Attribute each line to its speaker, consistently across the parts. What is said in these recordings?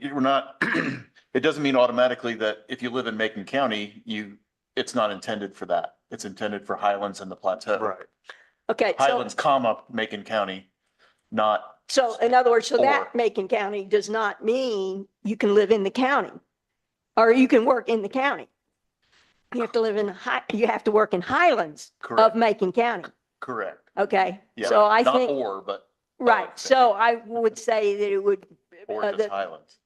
Speaker 1: you're not, it doesn't mean automatically that if you live in Macon County, you, it's not intended for that. It's intended for Highlands and the Plateau.
Speaker 2: Right.
Speaker 3: Okay, so,
Speaker 1: Highlands, comma, Macon County, not
Speaker 3: so in other words, so that
Speaker 1: Or-
Speaker 3: Macon County does not mean you can live in the county or you can work in the county. You have to live in, Hi- you have to work in Highlands of
Speaker 1: correct,
Speaker 3: Macon County.
Speaker 1: correct.
Speaker 3: Okay,
Speaker 1: Yeah,
Speaker 3: so I
Speaker 1: not
Speaker 3: think,
Speaker 1: Or, but
Speaker 3: right, so I would say that it would,
Speaker 1: or
Speaker 3: Uh,
Speaker 1: just
Speaker 3: the-
Speaker 1: Highlands.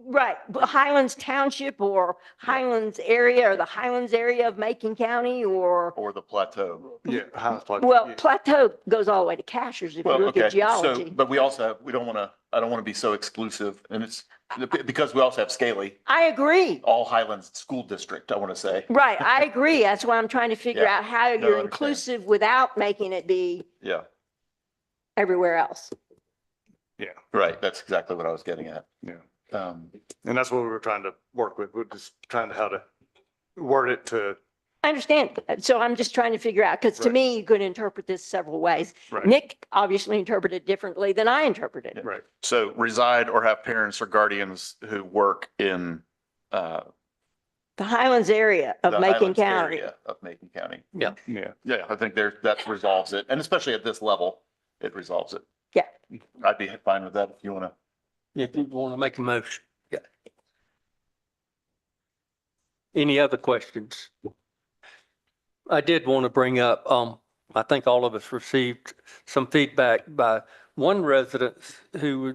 Speaker 3: right, but Highlands Township or Highlands area or the Highlands area of Macon County or,
Speaker 1: Or the plateau.
Speaker 2: Yeah. Highlands Plateau,
Speaker 3: well,
Speaker 2: yeah.
Speaker 3: Plateau goes all the way to Cashers if you
Speaker 1: Well,
Speaker 3: look
Speaker 1: okay,
Speaker 3: at
Speaker 1: so,
Speaker 3: geology.
Speaker 1: but we also, have we don't want to, I don't want to be so exclusive and it's, because we also have Scaly,
Speaker 3: I agree.
Speaker 1: all Highlands School District, I want to say.
Speaker 3: Right, I agree. That's why I'm trying to figure
Speaker 1: Yeah.
Speaker 3: out how
Speaker 1: No, I
Speaker 3: you're
Speaker 1: understand.
Speaker 3: inclusive without making it be
Speaker 1: Yeah,
Speaker 3: everywhere else.
Speaker 1: right. That's exactly what I was getting at.
Speaker 2: Yeah.
Speaker 1: Um,
Speaker 2: And that's what we were trying to work with. We're just trying to how to word it to,
Speaker 3: I understand. So I'm just trying to figure out, because to
Speaker 2: Right.
Speaker 3: me, you could interpret this several ways.
Speaker 2: Right.
Speaker 3: Nick obviously interpreted it differently than I interpreted.
Speaker 1: Yeah.
Speaker 3: it.
Speaker 2: right,
Speaker 1: so reside or have parents or guardians who work in, uh,
Speaker 3: The Highlands area
Speaker 1: the
Speaker 3: of Macon
Speaker 1: Highlands
Speaker 3: County.
Speaker 1: area Of Macon County.
Speaker 2: yeah.
Speaker 1: Yeah, I think there, that resolves it. And especially at this level, it resolves it.
Speaker 3: Yeah.
Speaker 1: I'd be fine with that if you want to.
Speaker 4: If you want to make a motion. Yeah. Any other questions? I did want to bring up, um, I think all of us received some feedback by one resident who,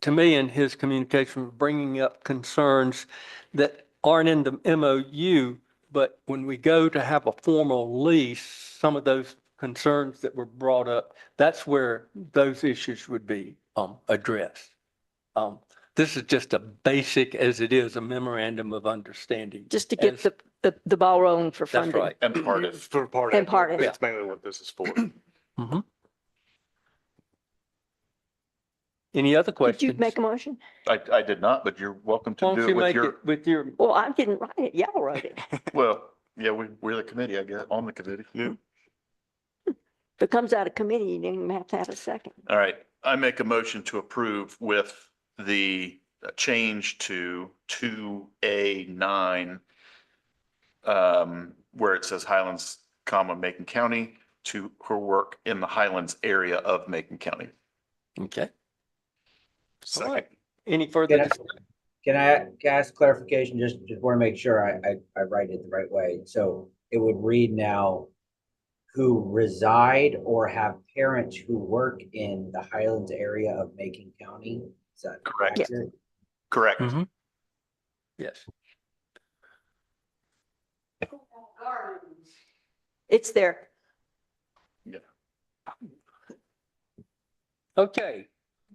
Speaker 4: to me in his communication, was bringing up concerns that aren't in the MOU, but when we go to have a formal lease, some of those concerns that were brought up, that's where those issues would be, um, addressed. Um, this is just a basic, as it is, a memorandum of understanding.
Speaker 3: Just to get
Speaker 4: As-
Speaker 3: the, the, the ball rolling for
Speaker 4: That's
Speaker 3: funding.
Speaker 4: right.
Speaker 1: And part of,
Speaker 2: For part
Speaker 3: And part of it.
Speaker 2: That's mainly what this is for.
Speaker 4: Any other
Speaker 3: Did you
Speaker 4: questions?
Speaker 3: make a motion?
Speaker 1: I, I did not, but you're welcome to
Speaker 4: Why don't
Speaker 1: do it
Speaker 4: you
Speaker 1: with
Speaker 4: make
Speaker 1: your,
Speaker 4: it with your,
Speaker 3: Well, I didn't write it. Y'all wrote it.
Speaker 1: well, yeah, we, we're the committee, I guess, on the committee.
Speaker 3: If it comes out of committee, you didn't even have to have a second.
Speaker 1: All right, I make a motion to approve with the change to two A nine. Um, where it says Highlands, comma, Macon County to her work in the Highlands area of Macon County.
Speaker 4: okay. All
Speaker 2: Second.
Speaker 4: right. Any further?
Speaker 5: Can I-
Speaker 4: discussion?
Speaker 5: Can I can I ask clarification? Just, just want to make sure I, I, I write it the right way. So it would read now, who reside or have parents who work in the Highlands area of Macon County? Is that
Speaker 1: Correct.
Speaker 3: Yeah.
Speaker 5: accurate?
Speaker 1: Correct.
Speaker 4: Mhm. Yes.
Speaker 3: It's there.
Speaker 4: Okay.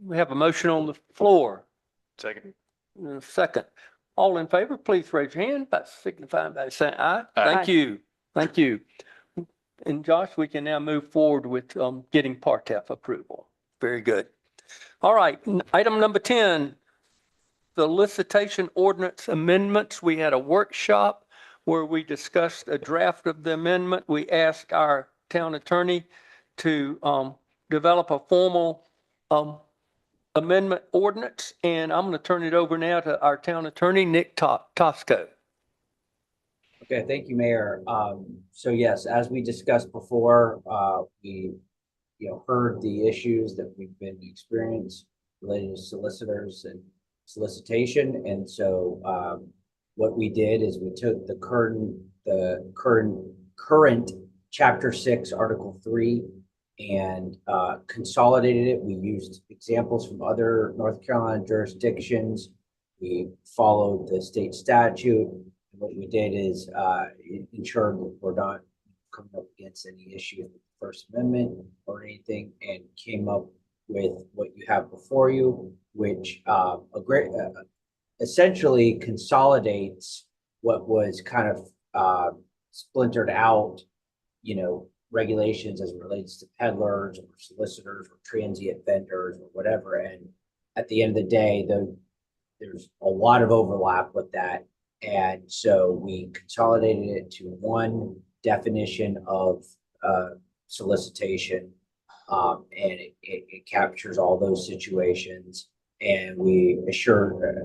Speaker 4: We have a motion on the floor.
Speaker 2: Second.
Speaker 4: and a Second. All in favor, please raise your hand by signifying by saying aye. Thank
Speaker 3: Aye.
Speaker 4: you. Thank you. And Josh, we can now move forward with um, getting Partef approval. Very good. All right, n- item number 10, the licitation ordinance amendments. We had a workshop where we discussed a draft of the amendment. We asked our town attorney to um, develop a formal um, amendment ordinance, and I'm going to turn it over now to our town attorney, Nick To- Tosco.
Speaker 5: Okay, thank you, Mayor. Um, so yes, as we discussed before, uh, we, you know, heard the issues that we've been experienced related to solicitors and solicitation, and so, um, what we did is we took the current, the current, current chapter six, article three, and, uh, consolidated it. We used examples from other North Carolina jurisdictions. We followed the state statute, what we did is uh, en- ensure that we're not coming up against any issue with the First Amendment or anything, and came up with what you have before you, which uh, a great, uh, essentially consolidates what was kind of uh, splintered out, you know, regulations as it relates to peddlers or solicitors or transient vendors or whatever. And at the end of the day, though, there's a lot of overlap with that. And so we consolidated it to one definition of uh, solicitation. Um, And it, it it captures all those situations. And we assure,